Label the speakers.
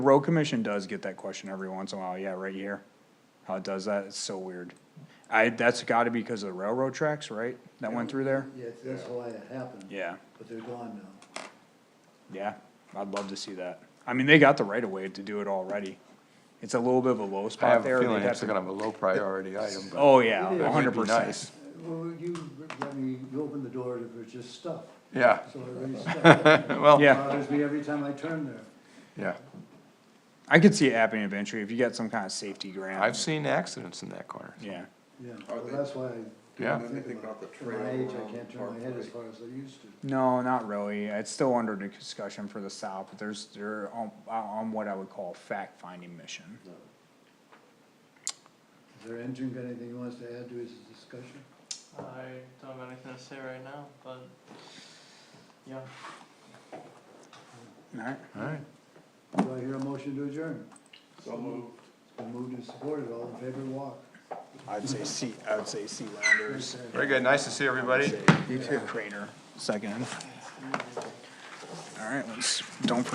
Speaker 1: Road commission does get that question every once in a while, yeah, right here. How it does that, it's so weird. I, that's gotta be because of the railroad tracks, right, that went through there?
Speaker 2: Yes, that's why it happened.
Speaker 1: Yeah,
Speaker 2: But they're gone now.
Speaker 1: yeah, I'd love to see that. I mean, they got the right of way to do it already. It's a little bit of a low
Speaker 3: I
Speaker 1: spot
Speaker 3: have
Speaker 1: there.
Speaker 3: a
Speaker 1: they'd
Speaker 3: feeling
Speaker 1: have
Speaker 3: it's
Speaker 1: to-
Speaker 3: gonna be a low priority item, but.
Speaker 1: Oh, yeah,
Speaker 2: It is.
Speaker 1: a hundred
Speaker 3: It would be
Speaker 1: percent.
Speaker 3: nice.
Speaker 2: Well, you, I mean, you open the door, it was just stuff.
Speaker 3: Yeah,
Speaker 2: So it really stuck.
Speaker 3: well,
Speaker 1: Yeah.
Speaker 2: Bothers me every time I turn there.
Speaker 3: yeah,
Speaker 1: I could see it happening eventually if you got some kind of safety grant.
Speaker 3: I've seen accidents in that corner.
Speaker 1: Yeah,
Speaker 2: Yeah,
Speaker 4: Are
Speaker 2: well,
Speaker 4: they
Speaker 2: that's why I. don't
Speaker 3: Yeah.
Speaker 2: think
Speaker 4: Anything about
Speaker 2: it.
Speaker 4: the
Speaker 2: At My
Speaker 4: trail
Speaker 2: age, I
Speaker 4: around
Speaker 2: can't turn my head as far as I used to.
Speaker 1: no, not really. It's still under discussion for the south, but there's, they're on, on what I would call fact-finding mission.
Speaker 2: Is there Andrew got anything he wants to add to his discussion?
Speaker 5: I don't have anything to say right now, but yeah.
Speaker 1: Alright,
Speaker 3: All right,
Speaker 2: Do I hear a motion to adjourn?
Speaker 4: So moved.
Speaker 2: It's been moved and supported, all in favor, walk.
Speaker 1: I'd say C, I would say C Landers.
Speaker 3: very good, nice to see
Speaker 1: uh,
Speaker 3: everybody.
Speaker 1: You too. Crater, second. All right, let's, don't